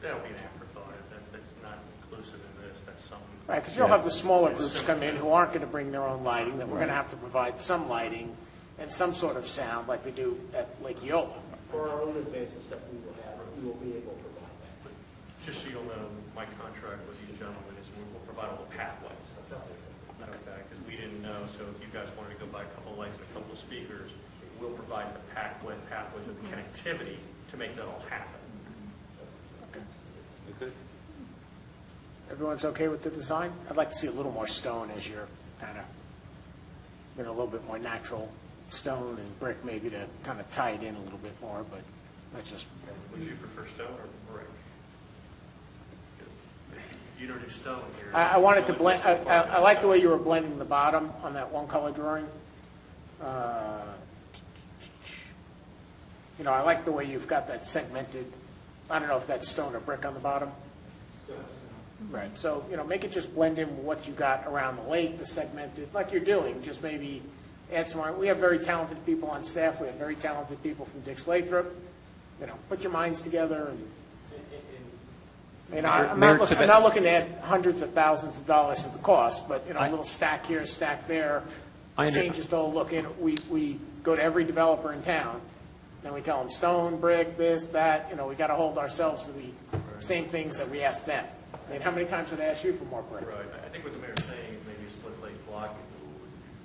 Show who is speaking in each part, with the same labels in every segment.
Speaker 1: That'll be an afterthought, if that- that's not inclusive in this, that's something.
Speaker 2: Right, because you'll have the smaller groups come in who aren't going to bring their own lighting, that we're going to have to provide some lighting and some sort of sound like we do at Lake Eola.
Speaker 3: For our own events and stuff we will have, we will be able to provide that.
Speaker 1: But Just so you'll know, my contract with these gentlemen is we will provide all the path lights. Okay, because we didn't know, so if you guys wanted to go buy a couple lights and a couple speakers, we'll provide the pathway, pathways and
Speaker 2: Mm-hmm.
Speaker 1: the connectivity to make that all happen.
Speaker 4: Okay.
Speaker 2: Everyone's okay with the design? I'd like to see a little more stone as your kind of, you know, a little bit more natural stone and brick maybe to kind of tie it in a little bit more, but that's just,
Speaker 1: Would you prefer stone or brick? You don't do stone here.
Speaker 2: I, I wanted to blend, I, I I like the way you were blending the bottom on that one color drawing. Uh, You know, I like the way you've got that segmented, I don't know if that's stone or brick on the bottom. Right, so, you know, make it just blend in with what you got around the lake, the segmented, like you're doing, just maybe add some, more. we have very talented people on staff, we have very talented people from Dick Lathrop, you know, put your minds together and, you know, I'm
Speaker 5: Mayor-
Speaker 2: not,
Speaker 5: Mayor
Speaker 2: look- I'm
Speaker 5: Tibet-
Speaker 2: not looking to add hundreds of thousands of dollars to the cost, but, you know,
Speaker 5: I-
Speaker 2: a little stack here, stack there,
Speaker 5: I under-
Speaker 2: changes the whole look, and we, we go to every developer in town, and we tell them stone, brick, this, that, you know, we got to hold ourselves to the same things that we asked them. I mean, how many times did I ask you for more brick?
Speaker 1: Right, I think what the mayor's saying is maybe a split lake block.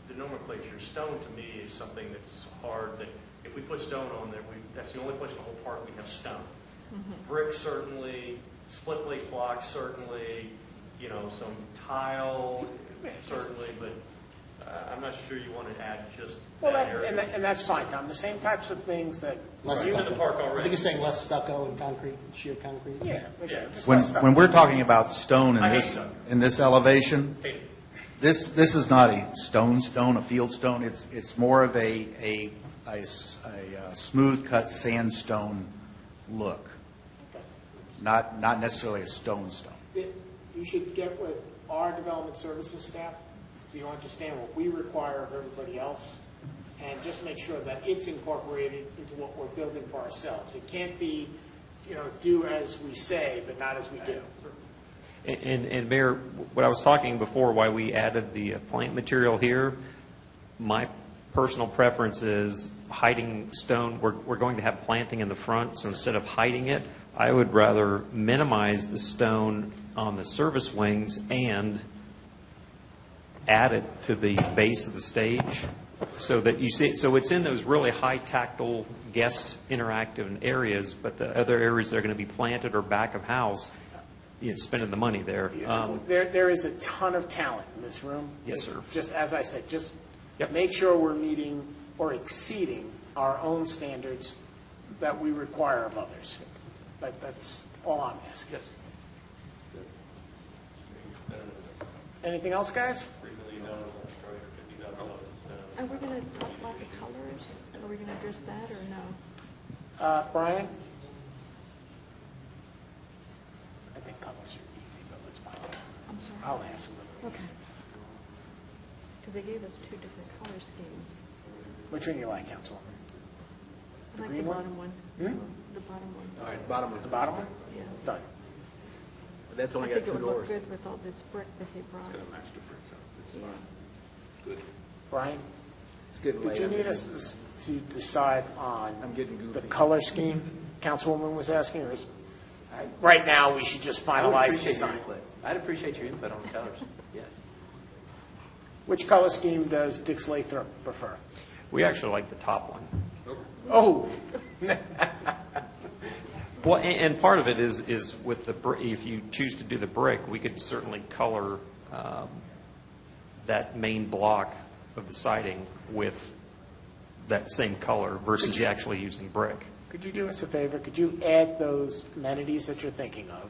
Speaker 1: The nomenclature, stone to me is something that's hard, that if we put stone on there, we, that's the only place in the whole park we have stone.
Speaker 2: Mm-hmm.
Speaker 1: Brick certainly, split lake block certainly, you know, some tile certainly, but uh, I'm not sure you want to add just
Speaker 2: Well,
Speaker 1: that
Speaker 2: that, and, that-
Speaker 1: area.
Speaker 2: and that's fine, Tom, the same types of things that
Speaker 1: It's
Speaker 2: you,
Speaker 1: in the park
Speaker 3: I
Speaker 1: already.
Speaker 3: think you're saying less stucco and concrete, sheer concrete?
Speaker 2: yeah. okay, just
Speaker 4: When,
Speaker 2: that stuff.
Speaker 5: When we're talking about stone in
Speaker 1: I hate
Speaker 5: this,
Speaker 1: stone.
Speaker 5: in this elevation,
Speaker 1: Hey,
Speaker 5: this, this is not a stone stone, a field stone, it's, it's more of a, a, a s- a, uh, smooth-cut sandstone look, not, not necessarily a stone stone.
Speaker 2: that you should get with our development services staff, so you understand what we require of everybody else, and just make sure that it's incorporated into what we're building for ourselves. It can't be, you know, do as we say, but not as we do.
Speaker 6: And, and Mayor, what I was talking before, why we added the uh, plant material here, my personal preference is hiding stone, we're, we're going to have planting in the front, so instead of hiding it, I would rather minimize the stone on the service wings and add it to the base of the stage, so that you see, so it's in those really high tactile guest interactive areas, but the other areas that are going to be planted or back of house, you know, spending the money there. Um,
Speaker 2: There, there is a ton of talent in this room.
Speaker 6: Yes, sir.
Speaker 2: Just as I said, just
Speaker 6: Yep.
Speaker 2: make sure we're meeting or exceeding our own standards that we require of others. That, that's all I'm asking.
Speaker 1: Yes.
Speaker 2: Anything else, guys?
Speaker 1: Three million dollars on a project, fifty thousand dollars in stone.
Speaker 7: Are we going to talk about the colors? Are we going to address that or no?
Speaker 2: Uh, Brian? I think colors are easy, but let's find out.
Speaker 7: I'm sorry.
Speaker 2: I'll ask them.
Speaker 7: Okay. Because they gave us two different color schemes.
Speaker 2: Which one you like, Councilwoman?
Speaker 7: I like the
Speaker 2: green one? Hmm?
Speaker 7: bottom one. The bottom
Speaker 3: All
Speaker 7: one,
Speaker 3: right, bottom one.
Speaker 2: The bottom one?
Speaker 7: yeah.
Speaker 2: Done.
Speaker 3: That's
Speaker 7: I
Speaker 3: only got
Speaker 7: think it
Speaker 3: two
Speaker 7: would look
Speaker 3: doors.
Speaker 7: good with all this brick that he brought.
Speaker 2: Brian,
Speaker 3: It's getting
Speaker 2: did
Speaker 3: late.
Speaker 2: you
Speaker 3: I'm
Speaker 2: need
Speaker 3: getting-
Speaker 2: us s- to decide on?
Speaker 3: I'm getting goofy.
Speaker 2: The color scheme Councilwoman was asking, or is, I- right now, we should just finalize
Speaker 8: appreciate your
Speaker 2: design?
Speaker 8: input. I'd appreciate your input on the colors, yes.
Speaker 2: Which color scheme does Dix Lathrop prefer?
Speaker 6: We actually like the top one.
Speaker 2: Oh,
Speaker 6: Well, a- and part of it is, is with the, br- if you choose to do the brick, we could certainly color um, that main block of the siding with that same color versus you actually using brick.
Speaker 2: Could you do us a favor? Could you add those amenities that you're thinking of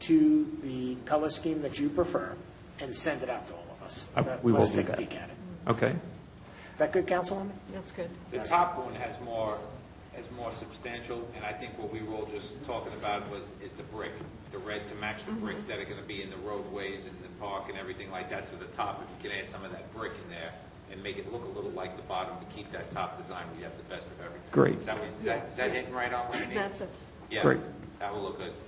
Speaker 2: to the color scheme that you prefer and send it out to all of us?
Speaker 6: Uh, we will do
Speaker 2: Let us
Speaker 6: that.
Speaker 2: take a peek at it.
Speaker 6: Okay?
Speaker 2: Is that good, Councilwoman?
Speaker 7: That's good.
Speaker 9: The top one has more, has more substantial, and I think what we were all just talking about was, is the brick, the red to match the
Speaker 6: Mm-hmm.
Speaker 9: bricks that are gonna be in the roadways and the park and everything like that, so the top, if you can add some of that brick in there and make it look a little like the bottom to keep that top design, we have the best of everything.
Speaker 6: Great.
Speaker 9: Is that, what- is that, is that hitting right on what you need?
Speaker 7: That's it.
Speaker 9: Yeah,
Speaker 6: Great.
Speaker 9: that will look good.